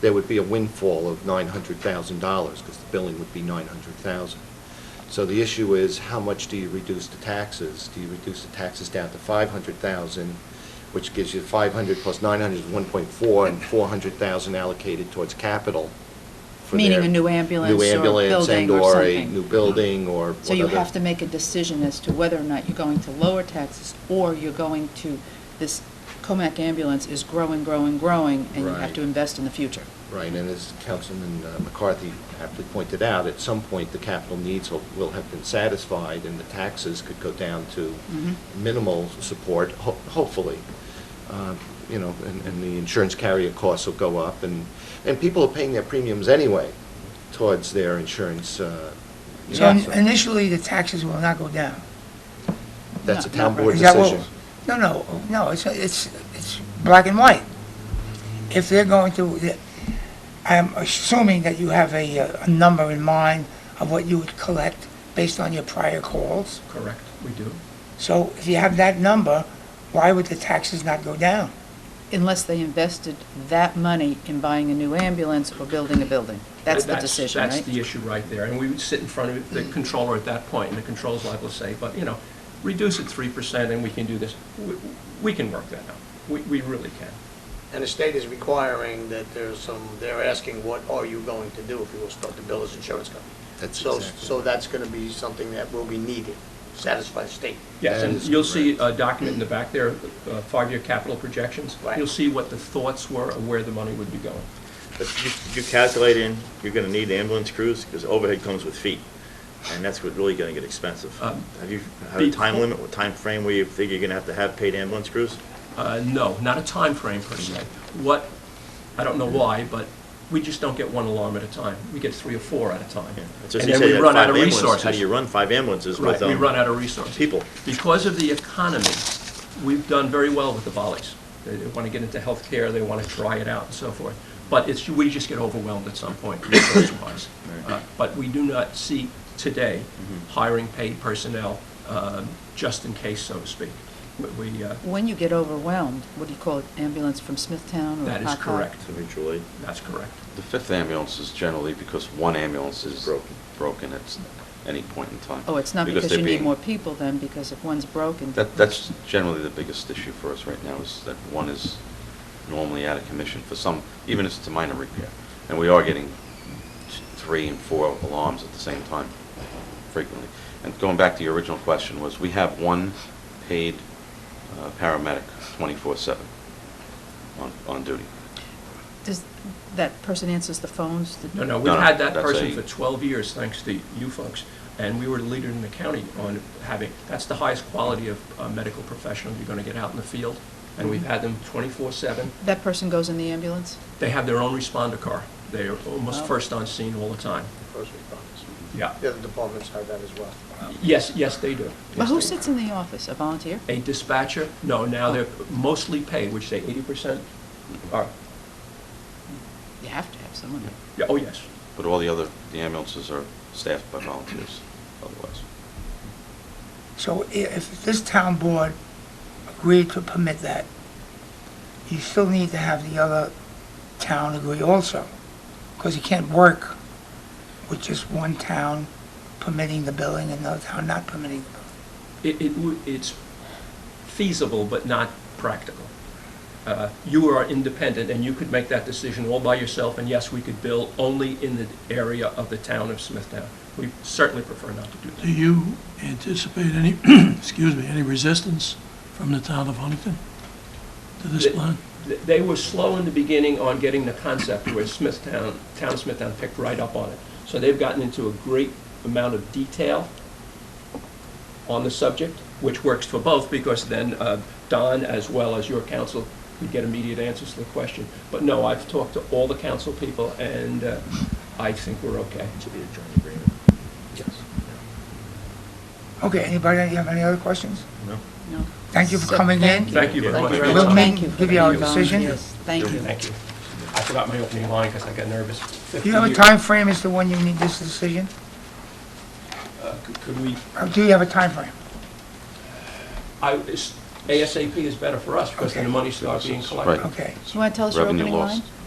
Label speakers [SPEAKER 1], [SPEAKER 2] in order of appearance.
[SPEAKER 1] there would be a windfall of nine hundred thousand dollars, because the billing would be nine hundred thousand. So the issue is, how much do you reduce the taxes? Do you reduce the taxes down to five hundred thousand, which gives you five hundred plus nine hundred is one point four, and four hundred thousand allocated towards capital? for
[SPEAKER 2] Meaning
[SPEAKER 1] their
[SPEAKER 2] a new ambulance or
[SPEAKER 1] ambulance and
[SPEAKER 2] building or
[SPEAKER 1] or a
[SPEAKER 2] something.
[SPEAKER 1] new building or
[SPEAKER 2] So you
[SPEAKER 1] whatever.
[SPEAKER 2] have to make a decision as to whether or not you're going to lower taxes, or you're going to, this Comac ambulance is growing, growing, growing, and you have
[SPEAKER 1] Right.
[SPEAKER 2] to invest in the future.
[SPEAKER 1] Right, and as Councilman uh, McCarthy aptly pointed out, at some point, the capital needs will- will have been satisfied, and the taxes could go down to
[SPEAKER 2] Mhm.
[SPEAKER 1] minimal support, ho- hopefully. Uh, You know, and and the insurance carrier costs will go up, and, and people are paying their premiums anyway towards their insurance. uh, you
[SPEAKER 3] So
[SPEAKER 1] know, so
[SPEAKER 3] initially, the taxes will not go down.
[SPEAKER 1] That's a
[SPEAKER 2] Not-
[SPEAKER 1] town
[SPEAKER 2] not
[SPEAKER 1] board
[SPEAKER 3] Is that what-
[SPEAKER 1] decision.
[SPEAKER 3] No, no, no, it's, it's, it's black and white. If they're going to, I'm assuming that you have a, uh, a number in mind of what you would collect based on your prior calls.
[SPEAKER 4] Correct, we do.
[SPEAKER 3] So if you have that number, why would the taxes not go down?
[SPEAKER 2] Unless they invested that money in buying a new ambulance or building a building. That's the decision, right?
[SPEAKER 4] That's the issue right there, and we would sit in front of the controller at that point, and the controller's liable to say, but, you know, reduce it three percent and we can do this. We- We can work that out, we, we really can.
[SPEAKER 5] And the state is requiring that there's some, they're asking, what are you going to do if you will start to bill as insurance company?
[SPEAKER 1] That's
[SPEAKER 5] So,
[SPEAKER 1] exactly
[SPEAKER 5] so
[SPEAKER 1] right.
[SPEAKER 5] that's gonna be something that will be needed, satisfy the state.
[SPEAKER 4] Yes,
[SPEAKER 1] That
[SPEAKER 4] and
[SPEAKER 1] is
[SPEAKER 4] you'll see a
[SPEAKER 1] correct.
[SPEAKER 4] document in the back there, uh, five-year capital projections.
[SPEAKER 5] Right.
[SPEAKER 4] You'll see what the thoughts were of where the money would be going.
[SPEAKER 6] But you, you calculate in, you're gonna need ambulance crews, because overhead comes with feet, and that's what really gonna get expensive.
[SPEAKER 4] Um,
[SPEAKER 6] Have you, have a time
[SPEAKER 4] before-
[SPEAKER 6] limit, or time frame where you think you're gonna have to have paid ambulance crews?
[SPEAKER 4] Uh, No, not a time frame per se. What, I don't know why, but we just don't get one alarm at a time. We get three or four at a time.
[SPEAKER 6] Yeah. It's just
[SPEAKER 4] And
[SPEAKER 6] you
[SPEAKER 4] then
[SPEAKER 6] said you
[SPEAKER 4] we
[SPEAKER 6] had
[SPEAKER 4] run
[SPEAKER 6] five
[SPEAKER 4] out of
[SPEAKER 6] ambulances.
[SPEAKER 4] resources.
[SPEAKER 6] How do you run five ambulances
[SPEAKER 4] Right,
[SPEAKER 6] with,
[SPEAKER 4] we
[SPEAKER 6] um,
[SPEAKER 4] run out of resources.
[SPEAKER 6] people?
[SPEAKER 4] Because of the economy, we've done very well with the volleys. They want to get into healthcare, they want to try it out and so forth. But it's, we just get overwhelmed at some point, resource-wise.
[SPEAKER 6] Right. Mm-hmm.
[SPEAKER 4] Uh, But we do not see today hiring paid personnel, um, just in case, so to speak. We- We, uh,
[SPEAKER 2] When you get overwhelmed, what do you call it, ambulance from Smithtown or
[SPEAKER 4] That is
[SPEAKER 2] Hancock?
[SPEAKER 4] correct.
[SPEAKER 6] Eventually.
[SPEAKER 4] that's correct.
[SPEAKER 7] The fifth ambulance is generally because one ambulance is
[SPEAKER 6] Broken.
[SPEAKER 7] broken at any point in time.
[SPEAKER 2] Oh, it's not because
[SPEAKER 7] they're
[SPEAKER 2] you need
[SPEAKER 7] being-
[SPEAKER 2] more people then, because if one's broken.
[SPEAKER 7] That, that's generally the biggest issue for us right now, is that one is normally out of commission for some, even if it's a minor repair. And we are getting t- three and four alarms at the same time frequently. And going back to your original question was, we have one paid uh, paramedic 24/7 on, on duty.
[SPEAKER 2] Does, that person answers the phones? the-
[SPEAKER 4] No, no,
[SPEAKER 7] No,
[SPEAKER 4] we've
[SPEAKER 7] no,
[SPEAKER 4] had that
[SPEAKER 7] that's
[SPEAKER 4] person
[SPEAKER 7] a-
[SPEAKER 4] for 12 years, thanks to you folks, and we were the leader in the county on having, that's the highest quality of uh, medical professional you're going to get out in the field, and we've had them 24/7.
[SPEAKER 2] That person goes in the ambulance?
[SPEAKER 4] They have their own responder car. They're almost
[SPEAKER 2] Wow.
[SPEAKER 4] first on scene all the time.
[SPEAKER 5] First responders.
[SPEAKER 4] Yeah.
[SPEAKER 5] The other departments have that as well.
[SPEAKER 4] Yes, yes, they do.
[SPEAKER 2] But
[SPEAKER 4] Yes,
[SPEAKER 2] who
[SPEAKER 4] they do.
[SPEAKER 2] sits in Oh. the office, a volunteer?
[SPEAKER 4] A dispatcher? No, now they're mostly paid, which they 80% are,
[SPEAKER 2] You have to have someone.
[SPEAKER 4] yeah, oh, yes.
[SPEAKER 7] But all the other, the ambulances are staffed by volunteers otherwise.
[SPEAKER 3] So i- if this town board agreed to permit that, you still need to have the other town agree also, because you can't work with just one town permitting the billing and another town not permitting. the billing.
[SPEAKER 4] It, it, would- it's feasible, but not practical. Uh, You are independent, and you could make that decision all by yourself, and yes, we could bill only in the area of the town of Smithtown. We certainly prefer not to do
[SPEAKER 8] Do
[SPEAKER 4] that.
[SPEAKER 8] you anticipate any, excuse me, any resistance from the town of Huntington to this
[SPEAKER 4] The-
[SPEAKER 8] plan?
[SPEAKER 4] Th- They were slow in the beginning on getting the concept, where Smithtown, town of Smithtown picked right up on it. So they've gotten into a great amount of detail on the subject, which works for both, because then uh, Don, as well as your council, would get immediate answers to the question. But no, I've talked to all the council people, and uh, I think we're okay.
[SPEAKER 6] Should be a joint agreement.
[SPEAKER 4] Yes.
[SPEAKER 3] Okay, anybody have any other questions?
[SPEAKER 6] No?
[SPEAKER 2] No.
[SPEAKER 3] Thank you for coming in.
[SPEAKER 4] Thank you very
[SPEAKER 2] Thank
[SPEAKER 4] much.
[SPEAKER 2] you very
[SPEAKER 3] We'll
[SPEAKER 2] much.
[SPEAKER 3] make-
[SPEAKER 2] Thank you for
[SPEAKER 3] give
[SPEAKER 2] the
[SPEAKER 3] you our
[SPEAKER 2] volunteers.
[SPEAKER 3] decision.
[SPEAKER 2] Thank you.
[SPEAKER 4] Thank you. I forgot my opening line because I got nervous.
[SPEAKER 3] Do you have a time frame as to when you need this decision?
[SPEAKER 4] Uh, could- Could we
[SPEAKER 3] Or do you have a time frame?
[SPEAKER 4] I, it's- ASAP is better for us because then the money starts being collected.
[SPEAKER 7] Right.
[SPEAKER 3] Okay.
[SPEAKER 2] You want to tell us your
[SPEAKER 7] Revenue
[SPEAKER 2] opening line?
[SPEAKER 7] lost.